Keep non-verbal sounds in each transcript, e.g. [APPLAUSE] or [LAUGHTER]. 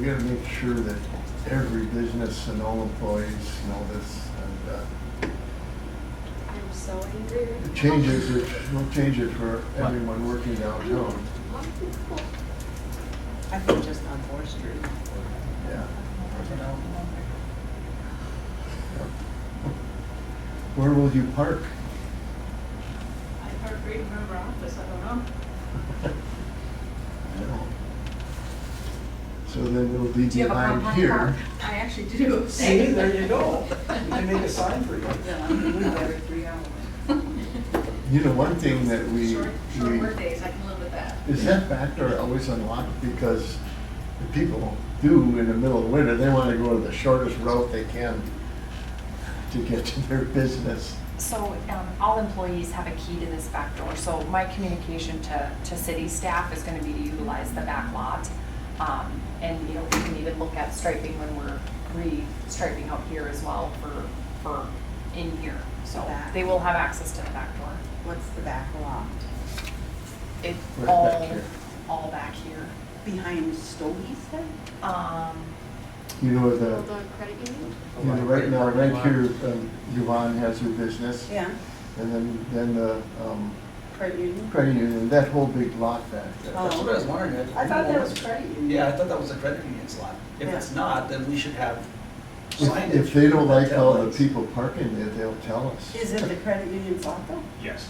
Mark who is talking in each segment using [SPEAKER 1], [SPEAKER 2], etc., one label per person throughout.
[SPEAKER 1] We gotta make sure that every business and all employees know this, and uh,
[SPEAKER 2] I'm so angry. right
[SPEAKER 1] the
[SPEAKER 2] now.
[SPEAKER 1] changes, are- we'll change it for everyone working downtown,
[SPEAKER 3] I think just on Fourth Street.
[SPEAKER 1] yeah.
[SPEAKER 3] you know.
[SPEAKER 1] Where will you park?
[SPEAKER 4] I heard reading from her office, I don't know.
[SPEAKER 1] I don't. So then it'll be
[SPEAKER 2] Do you have a
[SPEAKER 1] behind
[SPEAKER 2] compact
[SPEAKER 1] here.
[SPEAKER 2] car?
[SPEAKER 4] I actually do.
[SPEAKER 5] See, there you go. They make a
[SPEAKER 4] [LAUGHS]
[SPEAKER 5] sign for you.
[SPEAKER 3] Yeah, we leave every three hours.
[SPEAKER 1] You know, one thing that we,
[SPEAKER 4] Short, short
[SPEAKER 1] we,
[SPEAKER 4] work days, I can live with that.
[SPEAKER 1] is that back door always unlocked? Because the people do in the middle of winter, they wanna go to the shortest route they can to get to their business.
[SPEAKER 2] So um, all employees have a key to this back door, so my communication to, to city staff is gonna be to utilize the back lot. Um, And, you know, we can even look at striping when we're re-striping out here as well for, for in here. So
[SPEAKER 3] Back.
[SPEAKER 2] they will have access to the back door.
[SPEAKER 3] What's the back lot?
[SPEAKER 2] It,
[SPEAKER 1] Right back
[SPEAKER 2] all,
[SPEAKER 1] here.
[SPEAKER 2] all back here.
[SPEAKER 3] Behind Stogie's then?
[SPEAKER 2] Um,
[SPEAKER 1] You know, the,
[SPEAKER 6] credit union?
[SPEAKER 1] You know, right now, right here, um, Yvonne has her business,
[SPEAKER 3] Yeah.
[SPEAKER 1] and then, then the, um,
[SPEAKER 3] Credit union?
[SPEAKER 1] credit union, that whole big lot back there.
[SPEAKER 5] That's what I was wondering. if
[SPEAKER 3] I thought that was
[SPEAKER 5] people-
[SPEAKER 3] credit union.
[SPEAKER 5] Yeah, I thought that was a credit union slot. If it's not, then we should have
[SPEAKER 1] If-
[SPEAKER 5] signage.
[SPEAKER 1] If they don't like how the
[SPEAKER 5] Taillights.
[SPEAKER 1] people parking there, they'll tell us.
[SPEAKER 3] Is it the credit union lot though?
[SPEAKER 7] Yes.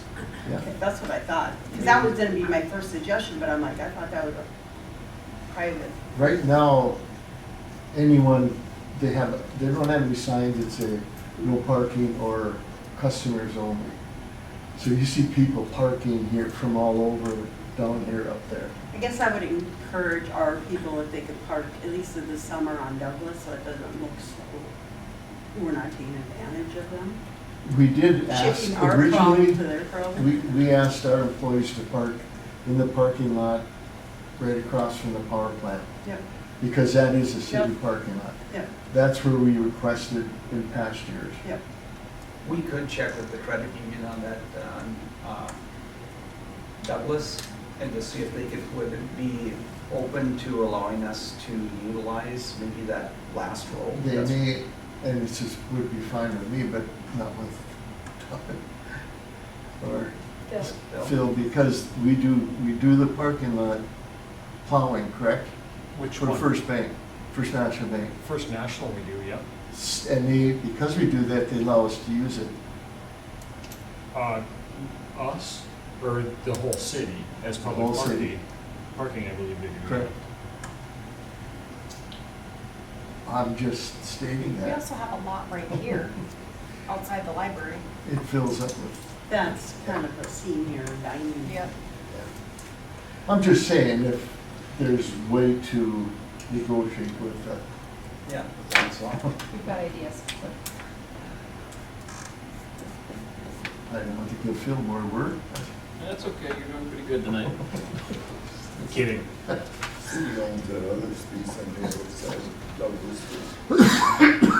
[SPEAKER 1] Yeah.
[SPEAKER 3] Okay, that's what I thought. Because that was gonna be my first suggestion, but I'm like, I thought that was a private.
[SPEAKER 1] Right now, anyone, they have, they don't have any signs that say no parking or customers only. So you see people parking here from all over, down here, up there.
[SPEAKER 3] I guess I would encourage our people if they could park at least in the summer on Douglas so it doesn't look so, we're not taking advantage of them.
[SPEAKER 1] We did ask
[SPEAKER 3] Shifting our problem
[SPEAKER 1] originally.
[SPEAKER 3] to their problem.
[SPEAKER 1] We, we asked our employees to park in the parking lot right across from the power plant,
[SPEAKER 3] Yep,
[SPEAKER 1] because that is a city
[SPEAKER 3] Yep.
[SPEAKER 1] parking lot.
[SPEAKER 3] yep,
[SPEAKER 1] That's where we requested in past years.
[SPEAKER 3] yep.
[SPEAKER 5] We could check with the credit union on that, um, uh, Douglas, and to see if they could, would it be open to allowing us to utilize maybe that last row?
[SPEAKER 1] They
[SPEAKER 5] That's-
[SPEAKER 1] may, and it's just, would be fine with me, but not with [LAUGHS] Todd or
[SPEAKER 5] that's-
[SPEAKER 1] Phil, because we do, we do the parking lot plowing, correct?
[SPEAKER 7] Which
[SPEAKER 1] For
[SPEAKER 7] one?
[SPEAKER 1] First Bank, First National Bank.
[SPEAKER 7] First National we do, yep.
[SPEAKER 1] S- And they, because we do that, they allow us to use it.
[SPEAKER 7] Uh, Us, or the whole city, as
[SPEAKER 1] whole
[SPEAKER 7] public
[SPEAKER 1] city.
[SPEAKER 7] parking, parking, I believe they do.
[SPEAKER 1] Correct. I'm just stating
[SPEAKER 2] we
[SPEAKER 1] that.
[SPEAKER 2] also have a lot right here, outside the library.
[SPEAKER 1] It fills up with,
[SPEAKER 3] That's kind of a senior dining.
[SPEAKER 1] I'm just saying if there's way to negotiate with uh, [LAUGHS] the,
[SPEAKER 5] Yeah, that's all.
[SPEAKER 2] We've got ideas.
[SPEAKER 1] I don't want to give Phil more work.
[SPEAKER 8] That's okay, you're doing pretty good tonight.
[SPEAKER 7] Kidding.
[SPEAKER 9] City owns that other space on the other side of Douglas.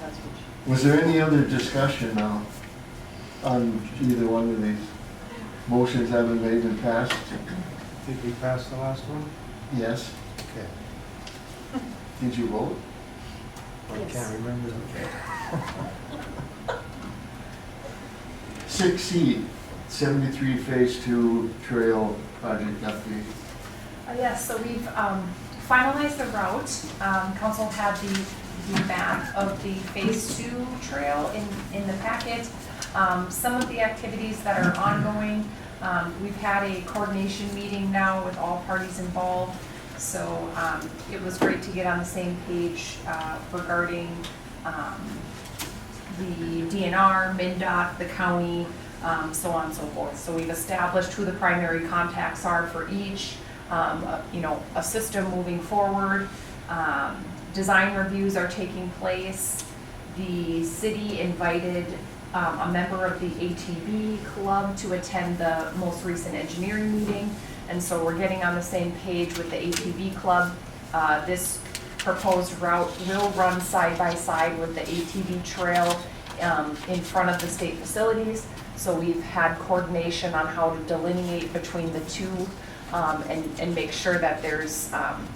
[SPEAKER 3] That's what
[SPEAKER 1] Was there any other discussion now on either one of these? Motions haven't made and passed?
[SPEAKER 10] Did we pass the last one?
[SPEAKER 1] Yes?
[SPEAKER 10] Okay.
[SPEAKER 1] Did you vote?
[SPEAKER 10] I can't remember.
[SPEAKER 1] Six C, seventy-three phase two trail project update.
[SPEAKER 2] Uh, Yes, so we've um, finalized the route. Um, Council had the, the map of the Phase Two trail in, in the packet. Um, Some of the activities that are ongoing, um, we've had a coordination meeting now with all parties involved. So um, it was great to get on the same page uh, regarding um, the DNR, MinDOT, the county, um, so on and so forth. So we've established who the primary contacts are for each, um, a- you know, a system moving forward. Um, Design reviews are taking place. The city invited um, a member of the ATV club to attend the most recent engineering meeting. And so we're getting on the same page with the ATV club. Uh, This proposed route will run side by side with the ATV trail um, in front of the state facilities. So we've had coordination on how to delineate between the two um, and, and make sure that there's um,